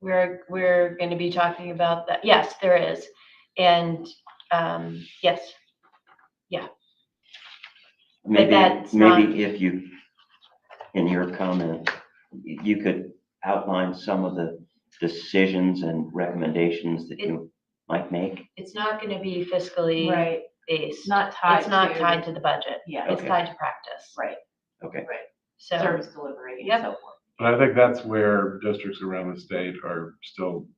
We're, we're gonna be talking about that. Yes, there is. And, um, yes, Maybe, that's not- maybe if you, in your comment, y- you could outline some of the decisions and recommendations that you might make. it's not gonna be fiscally Right, based. it's not tied It's not to- tied to the budget. Yeah, It's Okay. tied to practice. right, Okay, So, service delivery Yep. and so forth. But I think that's where districts around the state are still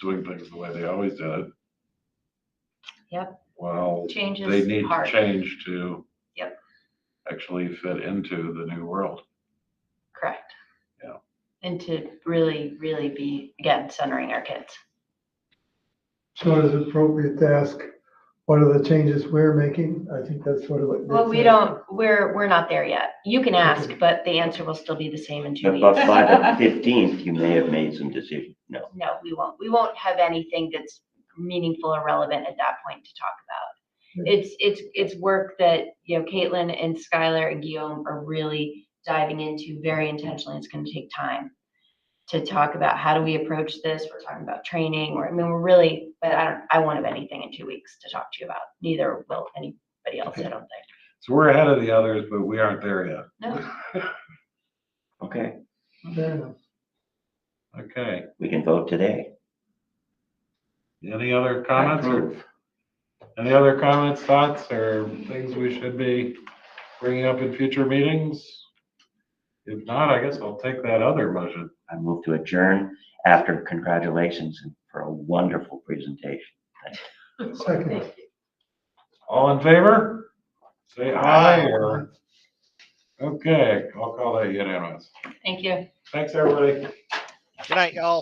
doing things the way they always did it. Yep. Well, changes they need to hard. change to. Yep. Actually fit into the new world. Correct. Yeah. And to really, really be, again, centering our kids. So it is appropriate to ask, what are the changes we're making? I think that's sort of what. Well, we Nick's don't, we're, we're not there yet. You can ask, Okay. but the answer will still be the same in two but weeks. but by the fifteenth, you may have made some decisions. No, No, we won't. We won't have anything that's meaningful or relevant at that point to talk about. Yeah. It's, it's, it's work that, you know, Caitlin and Skylar and Guillaume are really diving into very intentionally. It's gonna take time to talk about how do we approach this? We're talking about training, or, I mean, we're really, but I don't, I won't have anything in two weeks to talk to you about. Neither will anybody else, I don't think. So we're ahead of the others, but we aren't there yet. No, okay, saying. Fair enough. Okay, we can vote today. any other I comments or, approve. any other comments, thoughts, or things we should be bringing up in future meetings? If not, I guess I'll take that other motion. I move to adjourn after congratulations and for a wonderful presentation. Second. All in favor? Say aye or, okay, I'll call that unanimous. thank you. Thanks, everybody. Good night, y'all.